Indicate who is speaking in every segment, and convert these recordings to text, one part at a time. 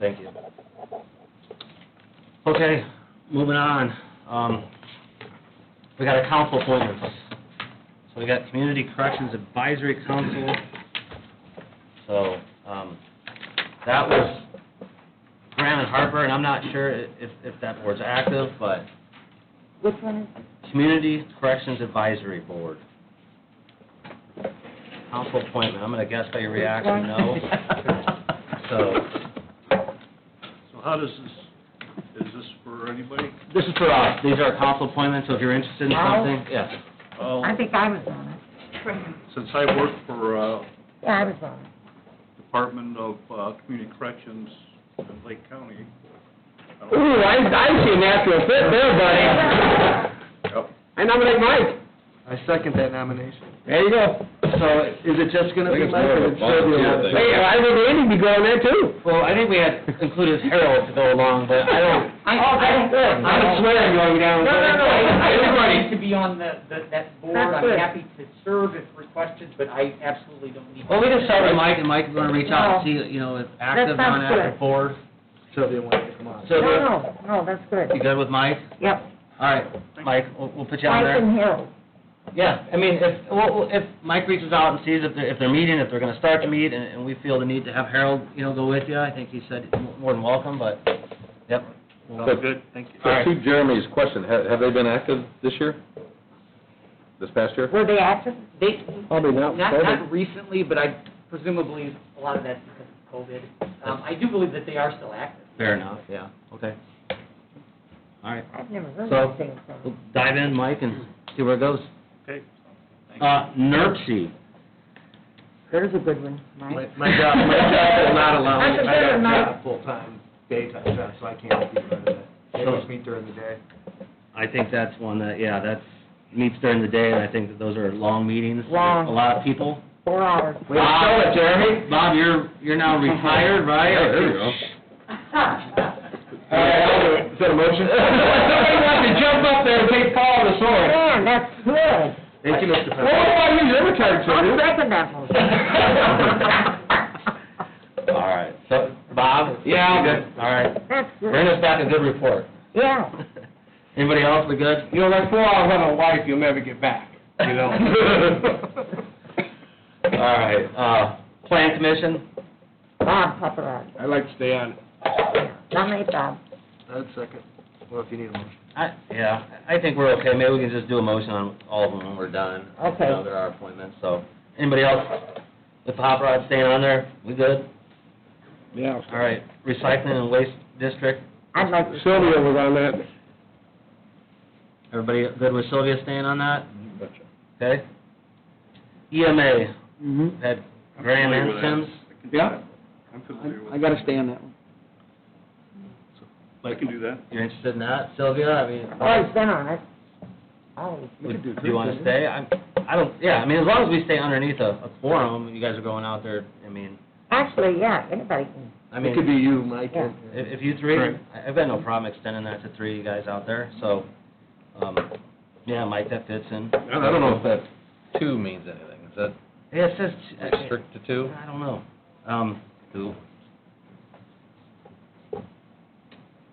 Speaker 1: Thank you. Okay, moving on. Um, we got our council appointments. So we got Community Corrections Advisory Council. So, um, that was Graham and Harper, and I'm not sure i- if, if that board's active, but
Speaker 2: Which one is it?
Speaker 1: Community Corrections Advisory Board. Council appointment, I'm gonna guess by your reaction, no. So,
Speaker 3: So how does this, is this for anybody?
Speaker 1: This is for us, these are council appointments, so if you're interested in
Speaker 2: Now?
Speaker 1: something, yes.
Speaker 3: Well,
Speaker 2: I think I was on it.
Speaker 3: Uh, since I work for, uh,
Speaker 2: Yeah, I was on it.
Speaker 3: Department of, uh, Community Corrections in Lake County. I don't-
Speaker 4: Ooh, I, I see a natural fit there, uh, buddy.
Speaker 3: Yep.
Speaker 4: I nominate Mike.
Speaker 5: I second that nomination.
Speaker 4: There you go.
Speaker 1: So, is it just gonna be Mike or it's still the
Speaker 4: Hey, I would Andy be going there too.
Speaker 1: uh, Well, I think we had included Harold to go along, but I don't,
Speaker 4: I, I would swear I'm going down.
Speaker 6: No, no, no, I I don't need
Speaker 4: Everybody.
Speaker 6: to be on the, the- that board,
Speaker 4: That's
Speaker 6: I'm
Speaker 4: good.
Speaker 6: happy to serve if requested, but I absolutely don't need.
Speaker 1: well, we just started Mike, and Mike's gonna reach out and see, you know, if active,
Speaker 2: That sounds
Speaker 1: non-active
Speaker 2: good.
Speaker 1: board.
Speaker 5: Sylvia wanted to come on.
Speaker 1: So,
Speaker 2: No, no, no, that's
Speaker 1: you
Speaker 2: good.
Speaker 1: good with Mike?
Speaker 2: Yep.
Speaker 1: All right, Mike, we'll, we'll put you on
Speaker 2: Mike
Speaker 1: there.
Speaker 2: and Harold.
Speaker 1: Yeah, I mean, if, well, well, if Mike reaches out and sees if they're, if they're meeting, if they're gonna start to meet, and, and we feel the need to have Harold, you know, go with you, I think he said more than welcome, but, yep.
Speaker 4: uh,
Speaker 7: But-
Speaker 3: Good, thank you.
Speaker 7: So to Jeremy's question, have, have they been active this year? This past year?
Speaker 2: Were they active?
Speaker 6: They,
Speaker 4: Probably
Speaker 6: not, not recently, but I presumably, a lot of that's because of COVID. Um, I do believe that they are still active.
Speaker 1: Fair enough, yeah, okay. All right,
Speaker 2: I've never heard
Speaker 1: So-
Speaker 2: anything from them.
Speaker 1: we'll dive in, Mike, and see where it goes.
Speaker 3: Okay.
Speaker 1: Uh, NERC.
Speaker 2: There's a good one, Mike.
Speaker 5: My, my job, my job will not allow me,
Speaker 2: That's a
Speaker 5: I got
Speaker 2: better
Speaker 5: a
Speaker 2: night.
Speaker 5: job full-time, daytime job, so I can't be part of that. They must meet during the day.
Speaker 1: I think that's one that, yeah, that's, meets during the day, and I think that those are long meetings.
Speaker 2: Long.
Speaker 1: A lot of people.
Speaker 2: Four hours.
Speaker 4: Way to sell it, Jeremy.
Speaker 1: Bob, you're, you're now retired, right?
Speaker 7: Yeah, there you go.
Speaker 4: All right, I'll do it. Is that a motion? Somebody wants to jump up there and take Paul the sword.
Speaker 2: Man, that's good.
Speaker 5: Thank you, Mr.
Speaker 4: Well, what
Speaker 5: Pepper.
Speaker 4: about you? You're retired, so
Speaker 2: I'll
Speaker 4: dude.
Speaker 2: second that motion.
Speaker 1: All right, so, Bob?
Speaker 4: Yeah, I'm good.
Speaker 1: All right,
Speaker 2: That's
Speaker 1: bring
Speaker 2: good.
Speaker 1: us back a good report.
Speaker 2: Yeah.
Speaker 1: Anybody else, we good?
Speaker 4: You know, that's four hours on a wife you'll never get back, you know?
Speaker 1: All right, uh, Plan Commission?
Speaker 2: Bob Paparazzi.
Speaker 4: I'd like to stay on.
Speaker 2: Nominate Bob.
Speaker 5: I'd second, well, if you need a motion.
Speaker 1: I, yeah, I think we're okay, maybe we can just do a motion on all of them when we're done.
Speaker 2: Okay.
Speaker 1: You know, there are appointments, so, anybody else with Hot Rod staying on there, we good?
Speaker 4: Yeah.
Speaker 1: All right, Recycling and Waste District,
Speaker 2: I'd like to.
Speaker 4: Sylvia was on that.
Speaker 1: everybody good with Sylvia staying on that? Okay? E EMA,
Speaker 4: Mm-hmm.
Speaker 1: had Graham
Speaker 3: I'm familiar
Speaker 1: and
Speaker 3: with
Speaker 1: Sims,
Speaker 3: that.
Speaker 4: Yeah.
Speaker 3: I'm familiar with that.
Speaker 4: I gotta stay on that one.
Speaker 3: I can do that.
Speaker 1: you're interested in that, Sylvia, I mean?
Speaker 2: I've always been on it. Always.
Speaker 1: Would, do you wanna stay? I, I don't, yeah, I mean, as long as we stay underneath a, a quorum, you guys are going out there, I mean,
Speaker 2: Actually, yeah, anybody can.
Speaker 1: I
Speaker 5: It could
Speaker 1: mean,
Speaker 5: be you, Mike,
Speaker 2: Yeah.
Speaker 5: and
Speaker 1: if, if you three, I- I've got no problem extending that to three you guys out there, so, um, yeah, Mike, that fits in.
Speaker 7: I I don't know if that two means anything. Is that
Speaker 1: Yeah, it says, I
Speaker 7: restrict to two?
Speaker 1: I don't know, um,
Speaker 7: Two.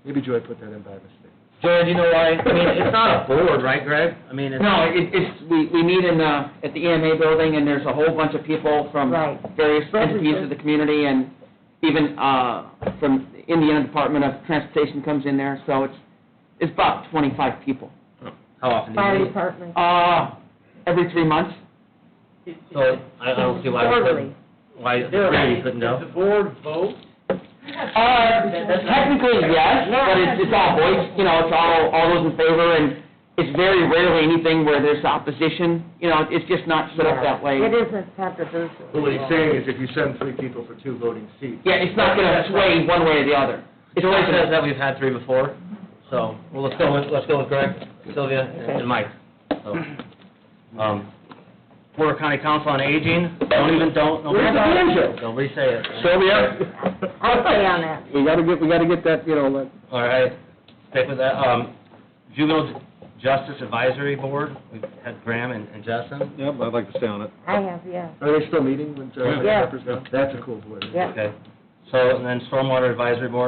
Speaker 5: maybe Joy put that in by mistake.
Speaker 1: Jared, you know why, I mean, it's not a board, right, Greg? I mean, it's.
Speaker 8: No, it, it's, we, we meet in, uh, at the EMA building, and there's a whole bunch of people from
Speaker 2: Right.
Speaker 8: various entities of the community, and even, uh, from Indiana Department of Transportation comes in there, so it's, it's about twenty-five people.
Speaker 1: How often do
Speaker 2: Fire
Speaker 1: you meet?
Speaker 2: department.
Speaker 8: Uh, every three months,
Speaker 6: It-
Speaker 1: So, I, I don't see why we
Speaker 2: Quarterly.
Speaker 1: couldn't, why,
Speaker 6: There-
Speaker 1: Greg, you couldn't go?
Speaker 6: The board vote,
Speaker 8: Uh, technically, yes, but it's, it's all voice, you know, it's all, all those in favor, and it's very rarely anything where there's opposition, you know, it's just not set up that way.
Speaker 2: It isn't controversial.
Speaker 5: But what he's saying is if you send three people for two voting seats,
Speaker 8: Yeah, it's not gonna sway one way or the other. It's
Speaker 1: Joy
Speaker 8: always
Speaker 1: says
Speaker 8: gonna,
Speaker 1: that we've had three before, so, well, let's go with, let's go with Greg, Sylvia, and and Mike. So, um, Porter County Council on Aging, don't even, don't, nobody
Speaker 4: Where's the
Speaker 1: say
Speaker 4: banjo?
Speaker 1: it. Nobody say it.
Speaker 4: Sylvia?
Speaker 2: I'll stay on that.
Speaker 4: We gotta get, we gotta get that, you know, like,
Speaker 1: All right, stick with that. Um, Juvenile Justice Advisory Board, we've had Graham and and Justin.
Speaker 7: Yep, I'd like to stay on it.
Speaker 2: I have, yeah.
Speaker 5: are they still meeting when Joy
Speaker 2: Yeah.
Speaker 5: Pepper's gone? That's a cool board.
Speaker 2: Yeah.
Speaker 1: Okay. So, and then Stormwater Advisory Board,